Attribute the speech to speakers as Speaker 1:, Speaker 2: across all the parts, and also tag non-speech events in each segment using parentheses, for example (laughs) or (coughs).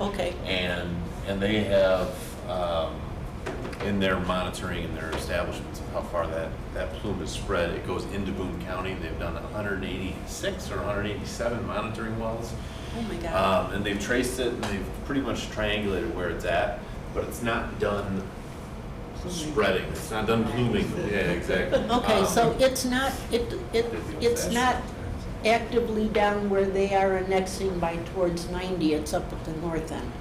Speaker 1: Okay.
Speaker 2: And, and they have, um, in their monitoring and their establishments of how far that, that plume is spread, it goes into Boone County, and they've done hundred and eighty-six or hundred and eighty-seven monitoring wells.
Speaker 1: Oh, my
Speaker 3: Uh,
Speaker 1: God.
Speaker 2: Um, and they've traced it and they've pretty much triangulated where it's at, but it's not done spreading, it's not done pluming. Yeah, exactly.
Speaker 1: Okay,
Speaker 2: Um,
Speaker 1: so it's not, it, it, it's not actively down where they are annexing by towards 90, it's up at the north end.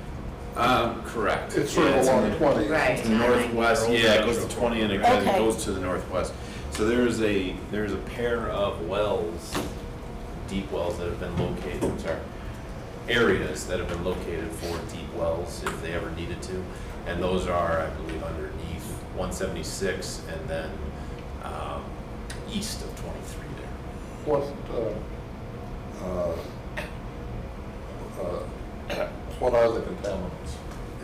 Speaker 2: Um, correct.
Speaker 3: It's sort
Speaker 2: Yeah,
Speaker 3: of
Speaker 2: it's in
Speaker 3: along
Speaker 2: the-
Speaker 3: twenty.
Speaker 4: Right.
Speaker 2: to the northwest, yeah, it goes to twenty and it kind of
Speaker 1: Okay.
Speaker 2: goes to the northwest. So there is a, there is a pair of wells, deep wells that have been located, sorry, areas that have been located for deep wells if they ever needed to. And those are, I believe, underneath one seventy-six and then, um, east of twenty-three there.
Speaker 3: What, uh, uh, uh, what are the contaminants?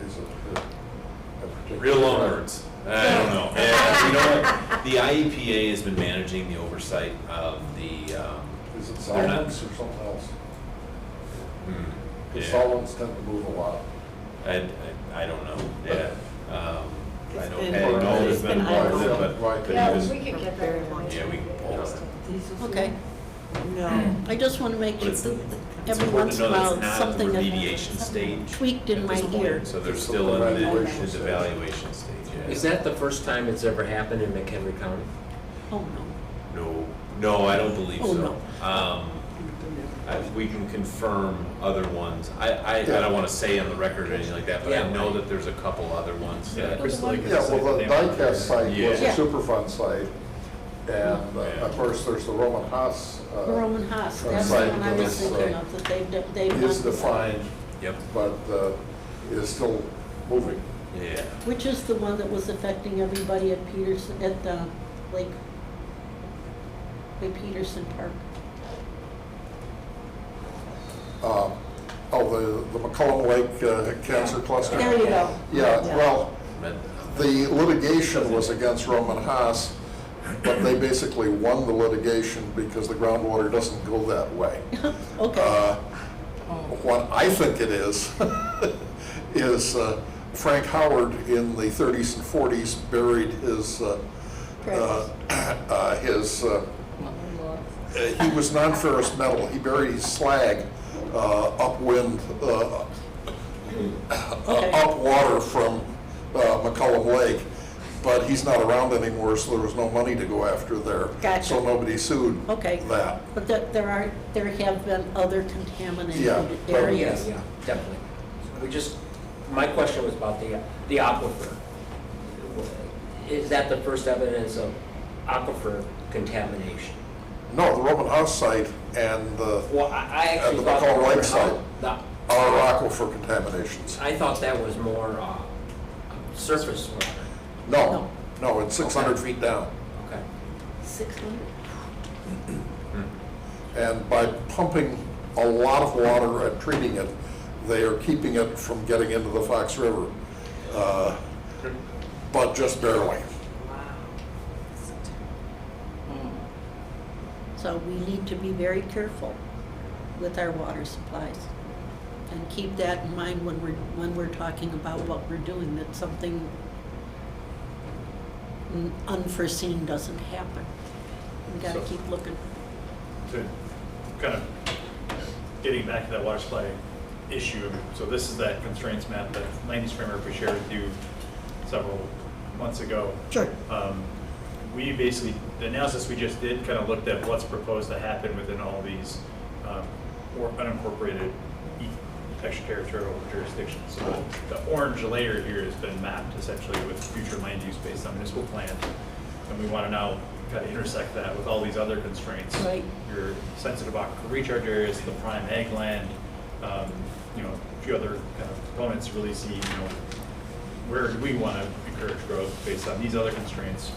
Speaker 3: Is it a- a particular?
Speaker 2: Real long words. I don't know. Yeah, you know what? The IEPA has been managing the oversight of the, um.
Speaker 3: Is it
Speaker 2: They're not-
Speaker 3: solvents or something else?
Speaker 2: hmm,
Speaker 3: Because
Speaker 2: yeah.
Speaker 3: solvents tend to move a lot.
Speaker 2: I, I, I don't know, yeah. Um, I
Speaker 1: It's
Speaker 2: don't
Speaker 1: been-
Speaker 2: know, there's
Speaker 3: it's
Speaker 2: been
Speaker 1: been
Speaker 2: more of
Speaker 1: ongoing.
Speaker 2: it, but, but
Speaker 4: Yeah,
Speaker 2: it was,
Speaker 4: we could get that
Speaker 2: yeah,
Speaker 4: information.
Speaker 2: we can pull it.
Speaker 1: Okay.
Speaker 5: No.
Speaker 1: I just want to make
Speaker 2: But
Speaker 1: sure
Speaker 2: it's,
Speaker 1: that
Speaker 2: it's
Speaker 1: every
Speaker 2: important
Speaker 1: once
Speaker 2: to
Speaker 1: in a
Speaker 2: know
Speaker 1: while,
Speaker 2: that it's not at the
Speaker 1: something
Speaker 2: remediation
Speaker 1: that
Speaker 2: stage.
Speaker 1: tweaked in
Speaker 2: at
Speaker 1: my
Speaker 2: this point.
Speaker 1: ear.
Speaker 2: So they're
Speaker 3: It's
Speaker 2: still
Speaker 3: the
Speaker 2: in the,
Speaker 3: evaluation
Speaker 2: in the
Speaker 3: stage.
Speaker 2: evaluation stage, yeah.
Speaker 6: Is that the first time it's ever happened in McHenry County?
Speaker 1: Oh, no.
Speaker 2: No, no, I don't believe
Speaker 1: Oh,
Speaker 2: so. Um, I- we can confirm other ones. I, I, I don't wanna say on the record or anything like that, but I
Speaker 6: Yeah.
Speaker 2: know that there's a couple other ones that.
Speaker 3: Yeah, well, the diecast site was a
Speaker 2: Yeah.
Speaker 3: Superfund site, and uh, of course, there's the Roman Haas. uh,
Speaker 1: Roman Haas,
Speaker 3: uh,
Speaker 1: that's the
Speaker 3: site
Speaker 1: one I was
Speaker 3: that is, uh,
Speaker 1: thinking of, that they've, done- they've.
Speaker 3: Is
Speaker 1: done.
Speaker 3: defined,
Speaker 2: Yep,
Speaker 3: but uh, is still moving.
Speaker 2: yeah.
Speaker 1: Which is the one that was affecting everybody at Peterson, at the Lake, Lake Peterson Park.
Speaker 3: Uh, Oh, the, the McCollum Lake uh, Cancer Cluster?
Speaker 1: There you go.
Speaker 3: Yeah, well, uh,
Speaker 2: But-
Speaker 3: the litigation was against Roman Haas, but they basically won the litigation because the groundwater doesn't go that
Speaker 1: (laughs)
Speaker 3: way.
Speaker 1: Okay,
Speaker 3: Uh, What I think it is, (laughs) is uh, Frank Howard in the 30s and 40s buried his, uh, uh, (coughs) uh, his, uh, uh, he was non-ferrous metal, he buried his slag uh, upwind, uh,
Speaker 1: Okay.
Speaker 3: upwater from uh, McCollum Lake, but he's not around anymore, so there was no money to go after there.
Speaker 1: Gotcha.
Speaker 3: So nobody sued
Speaker 1: okay.
Speaker 3: that.
Speaker 1: But that, there are, there have been other
Speaker 3: Yeah,
Speaker 1: contaminated
Speaker 3: but-
Speaker 1: areas.
Speaker 6: Yeah, definitely. We just, my question was about the, the aquifer. Is that the first evidence of aquifer contamination?
Speaker 3: No, the Roman house site and the,
Speaker 6: Well, I I
Speaker 3: At the
Speaker 6: actually thought.
Speaker 3: McCall
Speaker 6: that-
Speaker 3: Lake site.
Speaker 6: that-
Speaker 3: our aquifer contaminations.
Speaker 6: I thought that was more uh, surface water.
Speaker 3: No, no, it's 600 feet down.
Speaker 6: Okay.
Speaker 1: Six hundred?
Speaker 3: And by pumping a lot of water and treating it, they are keeping it from getting into the Fox River, uh, but just barely.
Speaker 1: So we need to be very careful with our water supplies. And keep that in mind when we're, when we're talking about what we're doing, that something unforeseen doesn't happen. We gotta
Speaker 7: So-
Speaker 1: keep looking.
Speaker 7: to kind of getting back to that water supply issue, so this is that constraints map that land framework we shared with you several months ago.
Speaker 1: Sure.
Speaker 7: Um, We basically, the analysis we just did kind of looked at what's proposed to happen within all these um, or unincorporated e- extraterritorial jurisdictions. So the orange layer here has been mapped essentially with future land use based on municipal plan. And we want to now kind of intersect that with all these other constraints.
Speaker 1: Right.
Speaker 7: Your sensitive aquifer recharge areas, the prime ag land, um, you know, a few other kind of components really see, you know, where do we want to encourage growth based on these other constraints?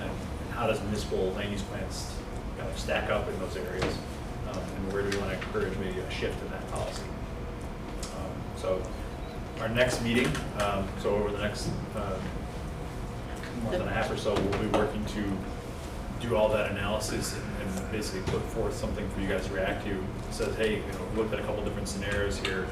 Speaker 7: And how does municipal land use plans kind of stack up in those areas? Um, And where do we want to encourage maybe a shift in that policy? Um, So our next meeting, um, so over the next uh, month and a half or so, we'll be working to do all that analysis and- and basically put forth something for you guys to react to. Says, hey, you know, we looked at a couple different scenarios here